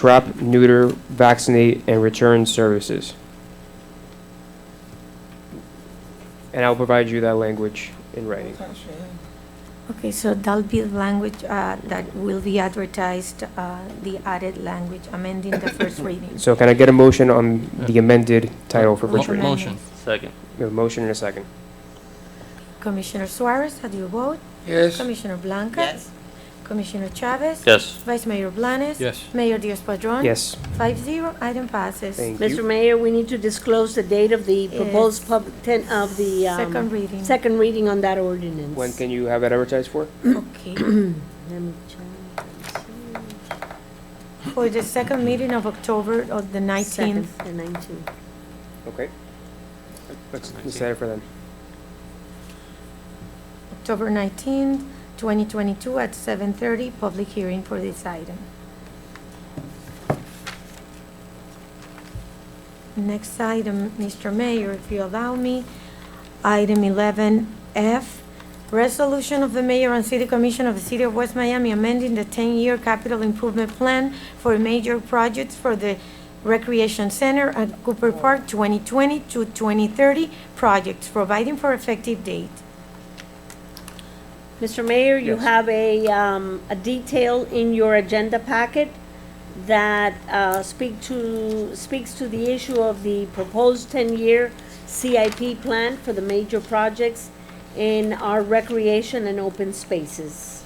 trap, neuter, vaccinate, and return services. And I'll provide you that language in writing. Okay, so that'll be the language uh, that will be advertised, uh, the added language, amending the first reading. So can I get a motion on the amended title for Mo- first reading? Motion. Second. A motion and a second. Commissioner Suarez, how do you vote? Yes. Commissioner Blanca? Yes. Commissioner Chavez? Yes. Vice Mayor Blanes? Yes. Mayor Diaz-Padrón? Yes, Five zero, item passes. thank Mr. you. Mayor, we need to disclose the date of the proposed Yes. public, ten, of the, Second um, reading. second reading on that ordinance. When can you have it advertised for? Okay. Let me check. For the second meeting of October, of the 19th. Second, The nineteenth. Okay. Let's decide it for then. October 19th, 2022, at 7:30, public hearing for this item. Next item, Mr. Mayor, if you allow me, item 11F, resolution of the mayor and city commission of the city of West Miami amending the 10-year capital improvement plan for major projects for the Recreation Center at Cooper Park 2020 to 2030 projects, providing for effective date. Mr. Mayor, you Yes. have a, um, a detail in your agenda packet that, uh, speak to, speaks to the issue of the proposed ten-year CIP plan for the major projects in our recreation and open spaces.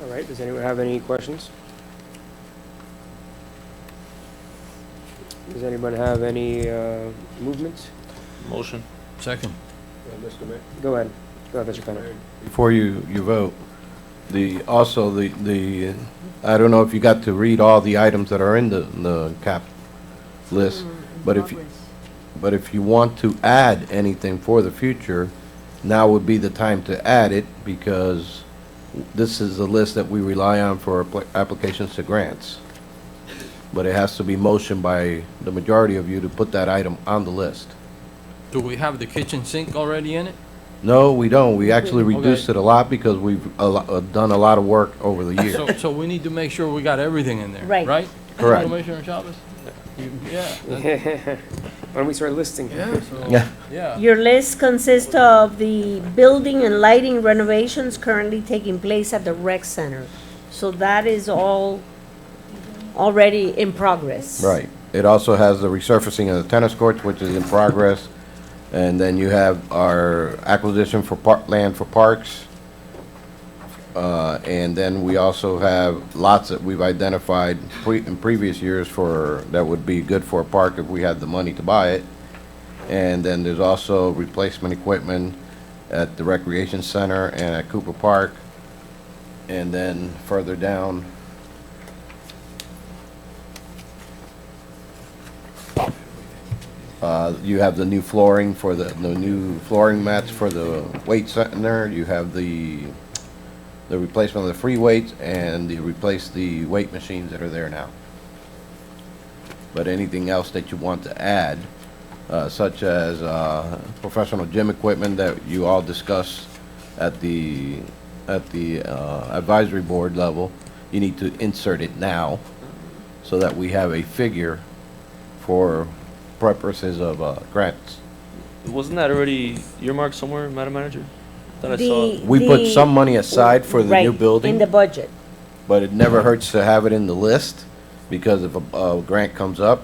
All right, does anyone have any questions? Does anyone have any uh, movements? Motion. Second. Mr. Mayor, Go ahead. Go ahead, Mr. Penna. Before you, you vote, the, also the, the, I don't know if you got to read all the items that are in the, the cap list, but if, you- but if you want to add anything for the future, now would be the time to add it, because this is the list that we rely on for appli- applications to grants. But it has to be motioned by the majority of you to put that item on the list. Do we have the kitchen sink already in it? No, we don't. We actually Okay. reduced it a lot because we've a lo- uh, done a lot of work over the years. So, so we need to make sure we got everything in there, Right. right? Correct. Commissioner Chavez? You- Yeah. that- Why don't we start listing? Yeah, so- Yeah. yeah. Your list consists of the building and lighting renovations currently taking place at the rec center. So that is all already in progress. Right. It also has the resurfacing of the tennis courts, which is in progress. And then you have our acquisition for park, land for parks. Uh, and then we also have lots that we've identified pre, in previous years for, that would be good for a park if we had the money to buy it. And then there's also replacement equipment at the recreation center and at Cooper Park. And then further down, Uh, You have the new flooring for the, the new flooring mats for the weight center. You have the, the replacement of the free weights and you replace the weight machines that are there now. But anything else that you want to add, uh, such as uh, professional gym equipment that you all discussed at the, at the uh, advisory board level, you need to insert it now so that we have a figure for purposes of uh, grants. Wasn't that already earmarked somewhere, Madam Manager? Thought I saw it. The- We put the- some money aside for the new Right, In the building, budget. but it never hurts to have it in the list, because if a, a grant comes up,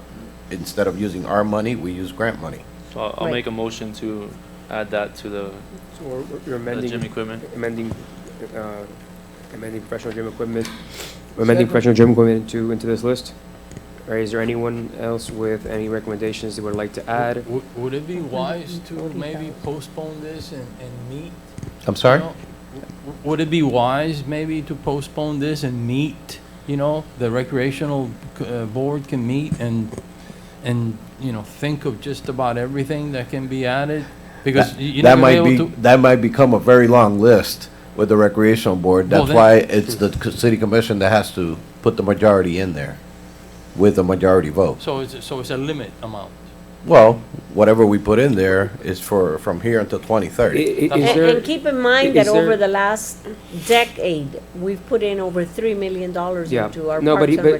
instead of using our money, we use grant money. So I'll, I'll Right. make a motion to add that to the So we're- We're the gym amending, equipment. amending, uh, amending professional gym equipment, amending Second. professional gym equipment to, into this list. Or is there anyone else with any recommendations they would like to add? Would, would it be wise to maybe postpone this and, and meet? I'm sorry? you know? W- Would it be wise maybe to postpone this and meet, you know, the recreational, c- uh, board can meet and, and, you know, think of just about everything that can be added? Because y- you're not That gonna might be be, able to. that might become a very long list with the recreational board, Well, that's then- why it's the c- city commission that has to put the majority in there, with a majority vote. So it's, so it's a limit amount, Well, whatever we put in there is for, from here until 2030. I- i- And, Is there, and keep in mind that is there- over the last decade, we've put in over three million dollars Yeah. into our No, but parks he- and but-